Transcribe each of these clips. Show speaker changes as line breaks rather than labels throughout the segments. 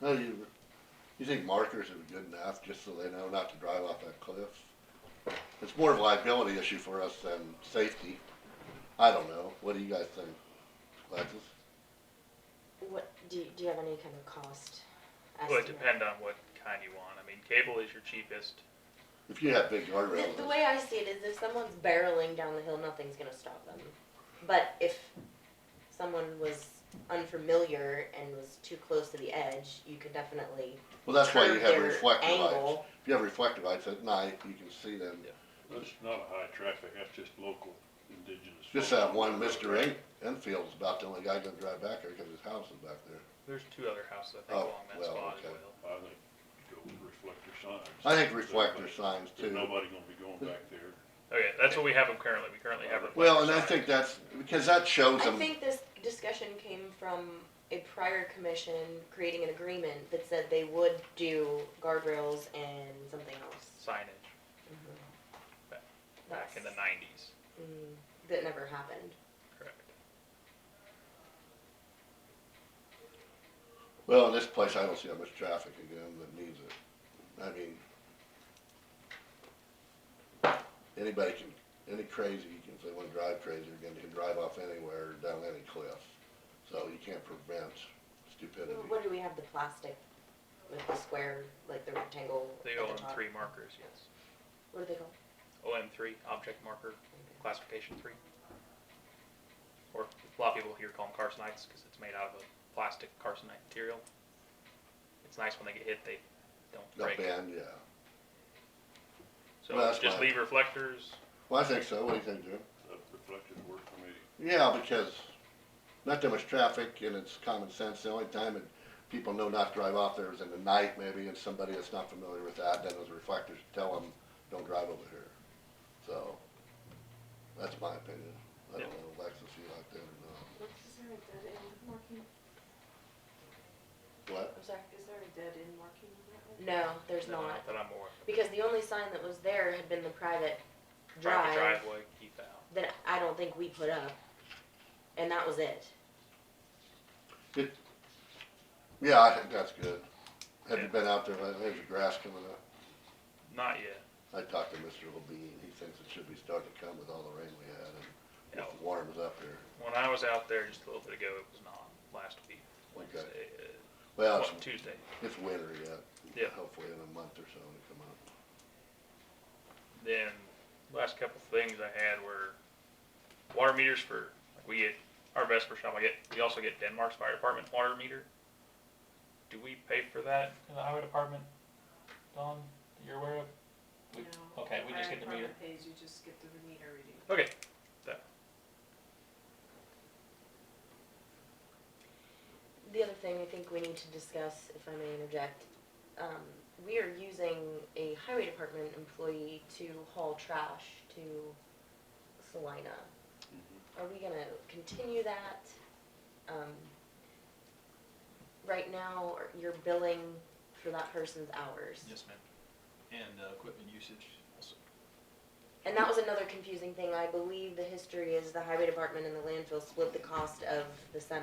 No, you, you think markers would be good enough, just so they know not to drive off that cliff? It's more of a liability issue for us than safety. I don't know, what do you guys think, Alexis?
What, do you, do you have any kind of cost
Well,
estimate?
it depend on what kind you want. I mean, cable is your cheapest.
If you have big
The, the
guardrails,
way I see it is if someone's barreling down the hill, nothing's gonna stop them. But if someone was unfamiliar and was too close to the edge, you could definitely
well, that's why you
curb
have
their
reflective lights.
angle.
If you have reflective lights at night, you can see them.
That's not a high traffic, that's just local indigenous.
Just
folks.
that one, Mr. En- Enfield's about the only guy gonna drive back there, cause his house is back there.
There's two other houses I think
Oh,
along that
well,
spot
okay.
as well.
I think go with reflector signs.
I think reflector signs
There's
too.
nobody gonna be going back there.
Oh yeah, that's what we have them currently. We currently have. reflector
Well, and I
signs.
think that's, because that shows
I
them,
think this discussion came from a prior commission creating an agreement that said they would do guardrails and something else. Mm-hmm.
signage Mm-hmm. back in the
That's-
'90s.
mm, That never happened.
Correct.
well, in this place, I don't see that much traffic again that needs it. I mean, anybody can, any crazy, if they wanna drive crazy, again, they can drive off anywhere, down any cliff. So you can't prevent stupidity.
What do we have, the plastic with the square, like the rectangle?
The
at top?
OM3 markers, yes.
What are they called?
OM3 object marker classification three. Or a lot of people here call them carcinites because it's made out of a plastic carcinite material. It's nice when they get hit; they don't
They'll
break.
ban, yeah.
So
Well, that's
just
fine.
leave reflectors.
Well, I think so, what do you think, Jim?
That reflected work for me.
Yeah, because not that much traffic and it's common sense. The only time that people know not to drive off there is in the night maybe and somebody that's not familiar with that, then those reflectors tell them, don't drive over here. So, that's my opinion. I don't
Yeah.
know, Alexis, you like that or
What's, is there a dead end marking?
not? What?
I'm sorry.
Is there a dead end marking on that one?
No, there's
no,
not.
that I'm aware of.
Because the only sign that was there had been the private
Private
drive
driveway, keep out.
that I don't think we put up. And that was it.
Yeah, I think that's good. Have you
Yeah.
been out there lately? There's the grass coming up.
Not yet.
I talked to Mr. Levine. He thinks it should be starting to come with all the rain we had and
No.
if it warms up here.
When I was out there just a little bit ago, it was not. Last week,
Okay.
Wednesday, uh,
Well,
what,
it's-
Tuesday.
it's winter yet.
Yeah.
Hopefully in a month or so it'll come up.
Then last couple things I had were water meters for like we get our Vesper shop. I get we also get Denmark's fire department water meter. Do we pay for that in the highway department, Don? that You're aware of? We-
No.
okay, we just get the
Fire
meter.
department pays, you just get the meter reading.
Okay, that
The other thing I think we need to discuss, if I may interject, um, we are using a highway department employee to haul trash to Salina. Are we gonna continue that? Um, right now, or you're billing for that person's hours.
Yes, ma'am. And uh, equipment usage also.
And that was another confusing thing. I believe the history is the highway department and the landfill split the cost of the semi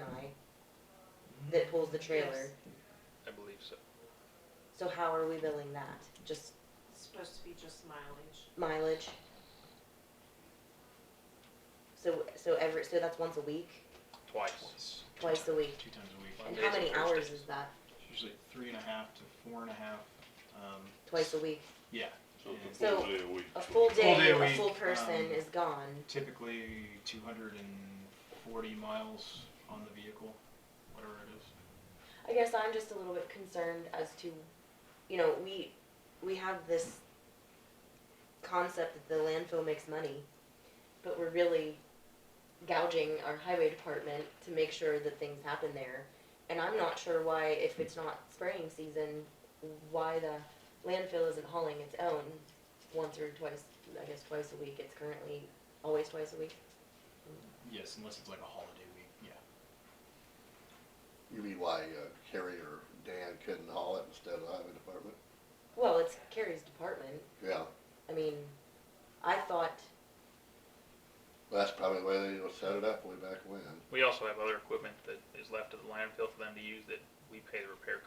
Mm-hmm.
that pulls the trailer.
Yes.
I believe so.
So how are we billing that? Just
It's supposed to be just mileage.
mileage. So, so every, so that's once a week,
Twice.
Twice.
twice a week.
Two times a week.
And
Mondays
how many
and
hours
Thursdays.
is that?
It's Usually three and a half to four and a half. Um,
Twice a week.
yeah.
So it's a
So,
full day a week.
A full
Full
day,
day a
a
week,
full person
um,
is gone.
Typically 240 miles on the vehicle, whatever it is.
I guess I'm just a little bit concerned as to, you know, we, we have this concept that the landfill makes money, but we're really gouging our highway department to make sure that things happen there. And I'm not sure why, if it's not spraying season, why the landfill isn't hauling its own once or twice, I guess twice a week. It's currently always twice a week.
Yes, unless it's like a holiday week. Yeah.
You mean why uh, Harry or Dan couldn't haul it instead of the highway department?
Well, it's Carrie's department.
Yeah,
I mean, I thought
well, that's probably the way they set it up way back when.
We also have other equipment that is left at the landfill for them to use that we pay the repair